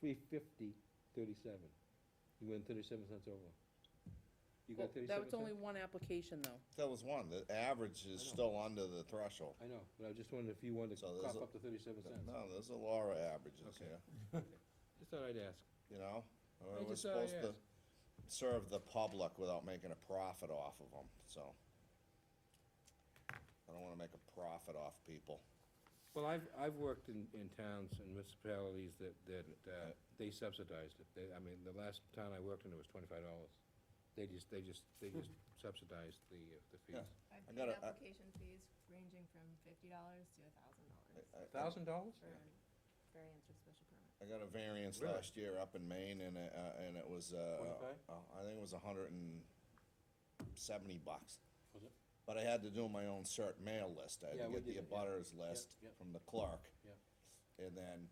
three fifty, thirty-seven. You went thirty-seven cents over. You got That thirty-seven was only cents? one application, though. That was one, the average is I know. still under the threshold. I know, but I just wondered if you wanted to So there's cough a- up to thirty-seven cents. No, there's a Laura averages Okay. here, Just thought I'd ask. you know? Or I We're just uh, thought I'd supposed to ask. serve the public without making a profit off of them, so. I don't wanna make a profit off people. Well, I've, I've worked in, in towns and municipalities that, that, uh, they subsidized it. They, I mean, the last town I worked in, it was twenty-five dollars. They just, they just, they just subsidized the, uh, the Hmm. Yeah. fees. I've I paid gotta- I- application fees ranging from fifty dollars to a thousand I- I- dollars Thousand dollars? for variance or special permit. I got a variance Really? last year up in Maine and, it, uh, and it was, uh, 25? uh, I think it was hundred and seventy bucks. Was it? But I had to do my own cert mail list, I Yeah, had to we did get the it, yeah. abutters list yeah. from the clerk. Yeah. And then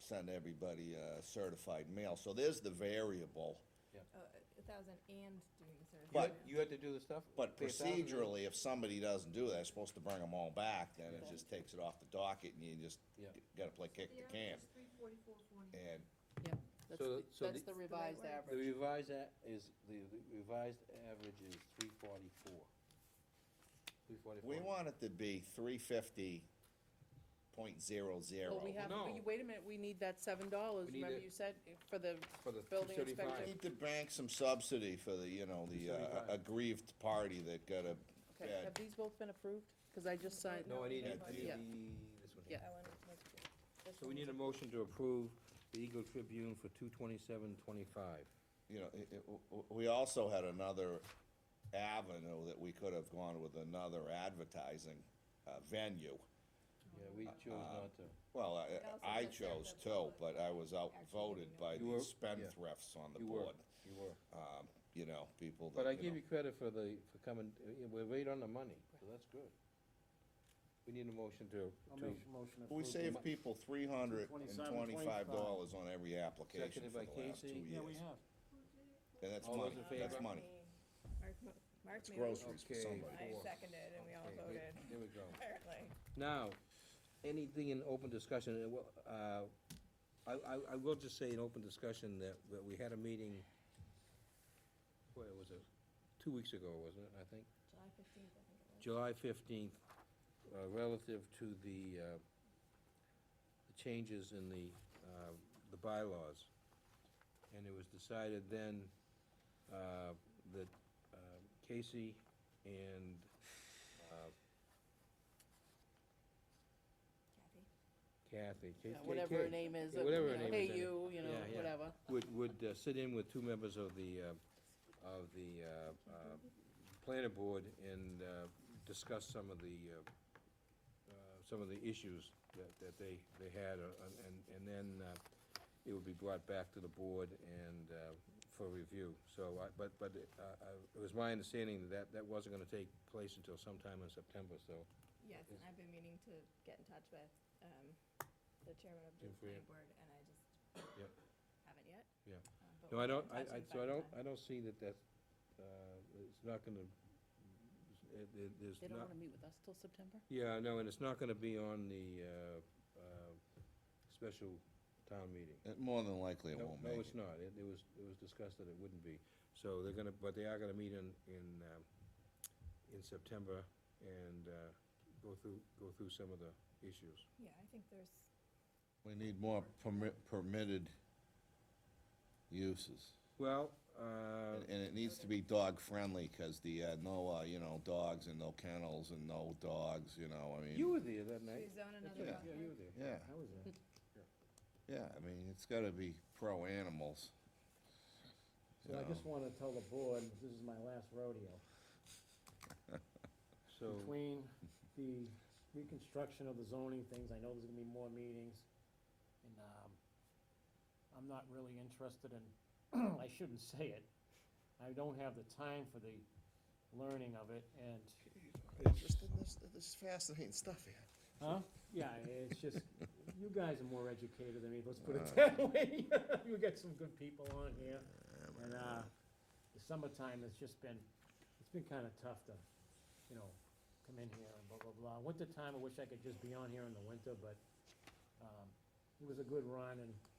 send everybody uh, certified mail, so there's the variable. Oh, a a thousand and doing the certified. But- You had to do the stuff? But pay $1,000? procedurally, if somebody doesn't do that, they're supposed to bring them all back, then it just takes it off the docket and you just Yeah. gotta play kick the can. three forty-four forty. And Yep, that's, So- the- so that's the- the revised The right The average. revised a- is, the the revised average is three forty-four. Three forty-four. we want it to be three fifty point zero zero. Well, we have, No. we- wait a minute, we need that seven dollars, We need remember it. you said, eh, for the, For the building two inspector. thirty-five. Need to bank some subsidy for the, you know, the uh, 275. aggrieved party that got a okay, bad have these both been approved? Because I just signed, No, I need, Yeah, I need yeah. the- this one here. Yeah. That one was good. This So we one need a was- motion to approve the Eagle Tribune for two twenty-seven twenty-five. you know, it, it, w- w- we also had another avenue that we could have gone with another advertising uh, venue. Yeah, uh, we chose not to. Well, I- also I, I just have chose the too, public but I was outvoted by You were- yeah. the spendthrifts on the You were, board. you were. Um, You know, people But I that, you give know. you credit for the, for coming, uh, yeah, we're right on the money, so that's good. We need a motion to, I'll to, make a motion. to We approve save the- people three hundred and 227, twenty-five 25. dollars on every application Seconded for by the last two Casey. years. Yeah, we have. And that's All those money, in that's favor? money. Mark, mo- Mark It's made a motion. groceries for Okay. somebody. I Four. seconded and we all Okay, we- voted, there we go. apparently. Now, anything in open discussion, uh, well, uh, I, I, I will just say in open discussion that, that we had a meeting, what was it, two weeks ago, wasn't it, I think? July fifteenth, I think it was. July fifteenth, uh, relative to the, uh, the changes in the, uh, the bylaws. And it was decided then, uh, that, uh, Casey and, uh, Kathy. Kathy, Ca- yeah, Ca- whatever her Ca- name is, yeah, uh, whatever her you know, name hey is, I you, you know, Yeah, yeah. whatever. would, would uh, sit in with two members of the, uh, of the, uh, uh, planning board and, uh, discuss some of the, uh, uh, some of the issues that, that they, they had, uh, and, and then, uh, it would be brought back to the board and, uh, for review. So, I, but, but, uh, I- it was my understanding that that, that wasn't gonna take place until sometime in September, so. Yes, and I've been meaning to get in touch with, um, the chairman of the Jim Freer. planning board and I just Yep. haven't yet. Yeah. Um, No, but we'll I get don't, I, in touch I, and so I find don't, time. I don't see that that's, uh, it's not gonna, it, it, there's They don't not. wanna meet with us till September? Yeah, no, and it's not gonna be on the, uh, uh, special town meeting. It- More than likely it No- won't make No, it. it's not, it, it was, it was discussed that it wouldn't be, so they're gonna, but they are gonna meet in, in, um, in September and, uh, go through, go through some of the issues. Yeah, I think there's We need more permit, permitted uses. Well, uh, And- And it needs to be dog-friendly, 'cause the, uh, no, uh, you know, dogs and no kennels and no dogs, you know, I mean. you were there that night. We zone That's another right, dog Yeah, you were there. Yeah, I was there. yeah, I mean, it's gotta be pro-animals. So I just want to tell the board, this is my last rodeo. So, Between the reconstruction of the zoning things, I know there's gonna be more meetings, and, um, I'm not really interested in, I shouldn't say it, I don't have the time for the learning of it, and, Just in this, this is fascinating stuff here. huh? Yeah, it's just, you guys are more educated than me, let's put it that way. You got some good people on here. And, uh, the summertime has just been, it's been kinda tough to, you know, come in here and blah, blah, blah. Wintertime, I wish I could just be on here in the winter, but, um, it was a good run and